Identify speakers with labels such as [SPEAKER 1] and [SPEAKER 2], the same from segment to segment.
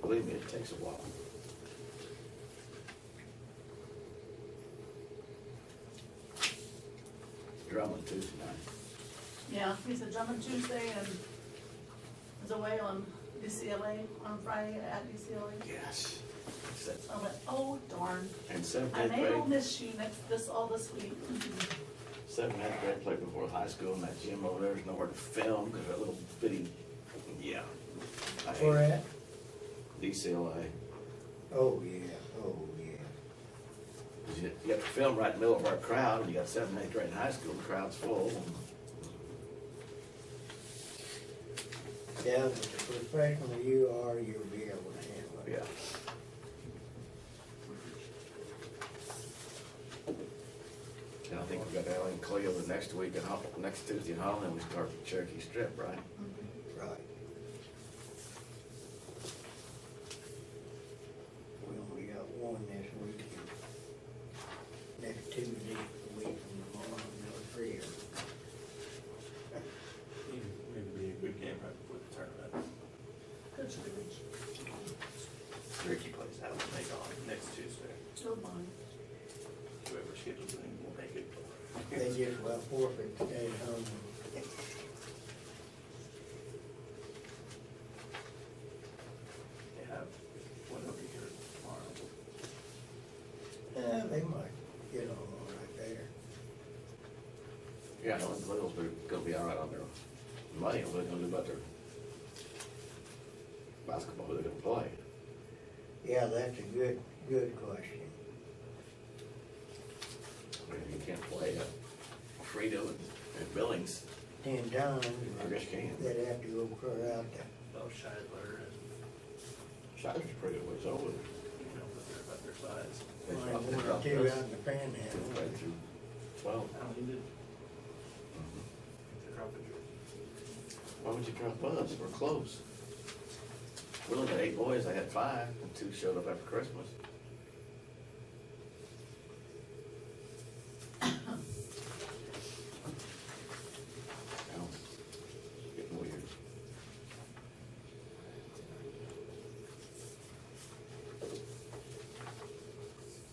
[SPEAKER 1] Believe me, it takes a while. Drummond Tuesday night.
[SPEAKER 2] Yeah, he's a German Tuesday and is away on UCLA on Friday at UCLA.
[SPEAKER 1] Yes.
[SPEAKER 2] So I went, oh darn,
[SPEAKER 1] And seventh,
[SPEAKER 2] I
[SPEAKER 1] eighth
[SPEAKER 2] may will
[SPEAKER 1] grade,
[SPEAKER 2] miss you next, this, all this week. Mm-hmm,
[SPEAKER 1] seventh, and eighth grade played before high school and that gym over there is nowhere to film because that little bitty, yeah. I hate
[SPEAKER 3] Where at?
[SPEAKER 1] DCLA.
[SPEAKER 3] Oh, yeah, oh, yeah.
[SPEAKER 1] 'Cause You you have to film right in the middle of our crowd, and you got seventh, eighth grade and high school, the crowd's full.
[SPEAKER 3] Yeah, but the professional you are, you'll be able to handle it.
[SPEAKER 1] Oh, Yeah. And I think we got Alan Cleo the next week and Hol- next Tuesday in Holland, we start the Cherokee Strip, right?
[SPEAKER 2] mm-hmm.
[SPEAKER 3] Right. We only got one this weekend. Next Tuesday, the week from tomorrow, no three.
[SPEAKER 4] It'd be a good game right before the tournament.
[SPEAKER 2] Good to reach,
[SPEAKER 4] Ricky plays that one, they go on next Tuesday.
[SPEAKER 2] don't mind.
[SPEAKER 4] Whoever schedules it, will make it.
[SPEAKER 3] They just well forfeit to stay at home.
[SPEAKER 4] They have one over here tomorrow.
[SPEAKER 3] Uh, they might get on all right there.
[SPEAKER 1] Yeah, Alan Cleo's they're gonna be all right on their money, what are they gonna do about their basketball, who they're gonna play?
[SPEAKER 3] Yeah, that's a good, good question.
[SPEAKER 1] I mean, you can't play at Frito and and Billings,
[SPEAKER 3] Ten times,
[SPEAKER 1] I guess you can.
[SPEAKER 3] they'd have to go clear out there.
[SPEAKER 4] Both Scheidler and,
[SPEAKER 1] Shire's pretty much over.
[SPEAKER 4] you know, but they're about their size.
[SPEAKER 1] They
[SPEAKER 3] Might
[SPEAKER 1] dropped- they
[SPEAKER 3] one or
[SPEAKER 1] dropped
[SPEAKER 3] two
[SPEAKER 1] us.
[SPEAKER 3] out in the panhandle.
[SPEAKER 1] Right through twelve. Mm-hmm.
[SPEAKER 4] I don't need it. They're dropping it.
[SPEAKER 1] Why would you drop us? We're close. We only had eight boys, I had five, and two showed up after Christmas. Now, it's Getting weird.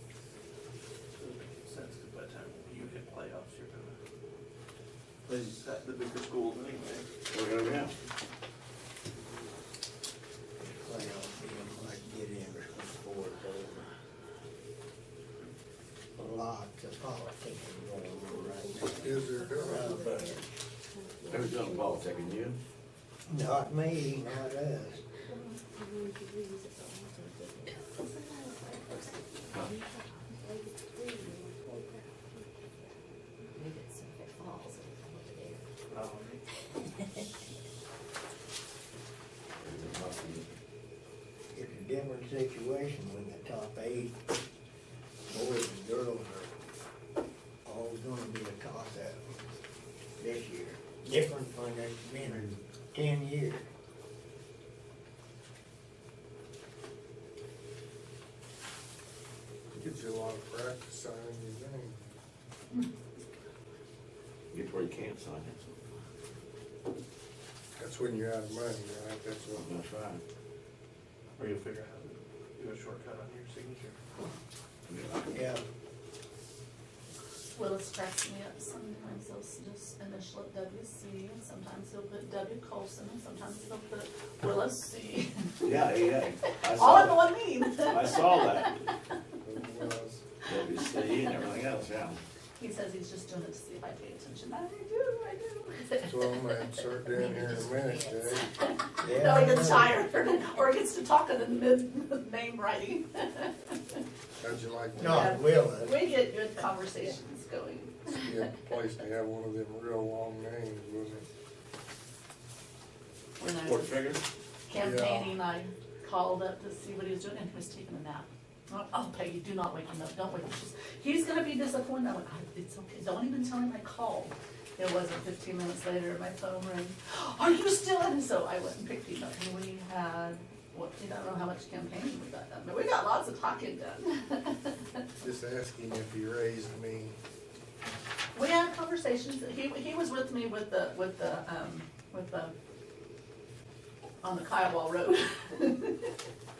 [SPEAKER 4] Doesn't make any sense, because by the time you hit playoffs, you're gonna. Plays at the bigger schools anyway.
[SPEAKER 1] We're gonna have,
[SPEAKER 3] Well, you might get in before it's over. Lots of politics going on right now. Around there.
[SPEAKER 1] who's doing ball taking you?
[SPEAKER 3] Not me, not us. It's a different situation when the top eight, boys and girls are all gonna be a toss-up this year. Different from it's been in ten years.
[SPEAKER 5] Gives you a lot of practice on your game.
[SPEAKER 1] Get to where you can't sign it.
[SPEAKER 5] That's when you're out of money, right? That's when,
[SPEAKER 1] That's right.
[SPEAKER 4] Or you'll figure out how to do a shortcut on your signature.
[SPEAKER 1] I mean, I can-
[SPEAKER 3] Yeah,
[SPEAKER 2] Will is cracking me up, sometimes he'll just initial it WC, and sometimes he'll put W Colson, and sometimes he'll put Willis C.
[SPEAKER 1] Yeah, yeah, I
[SPEAKER 2] All in
[SPEAKER 1] saw,
[SPEAKER 2] one name.
[SPEAKER 1] I saw that,
[SPEAKER 5] it was.
[SPEAKER 1] WC and everything else, yeah.
[SPEAKER 2] He says he's just doing it to see if I pay attention. I do, I do.
[SPEAKER 5] That's what I'm gonna start doing here in a minute, Dave.
[SPEAKER 3] yeah.
[SPEAKER 2] No,
[SPEAKER 3] I
[SPEAKER 2] he gets
[SPEAKER 3] know.
[SPEAKER 2] tired, or he gets to talking in mid, name writing.
[SPEAKER 5] How'd you like that?
[SPEAKER 3] Not Willis.
[SPEAKER 2] We get good conversations going.
[SPEAKER 5] You had a place to have one of them real long names, wasn't it?
[SPEAKER 2] When I
[SPEAKER 1] Port
[SPEAKER 2] was
[SPEAKER 1] Trigger?
[SPEAKER 2] campaigning, I called up to see what he was doing, and he was taking a nap. I'm like, Oh, Peggy, do not wake him up, don't wake him up. She's, He's gonna be disappointed. I went, "I- it's okay, don't even tell him I called. It wasn't fifteen minutes later, my phone rang. Are you still in? So I went and picked him up, and we had, what, I don't know how much campaigning we got done, but we got lots of talking done.
[SPEAKER 5] Just asking if he raised me.
[SPEAKER 2] We had conversations, he, he was with me with the, with the, um, with the, on the Kiowa Road.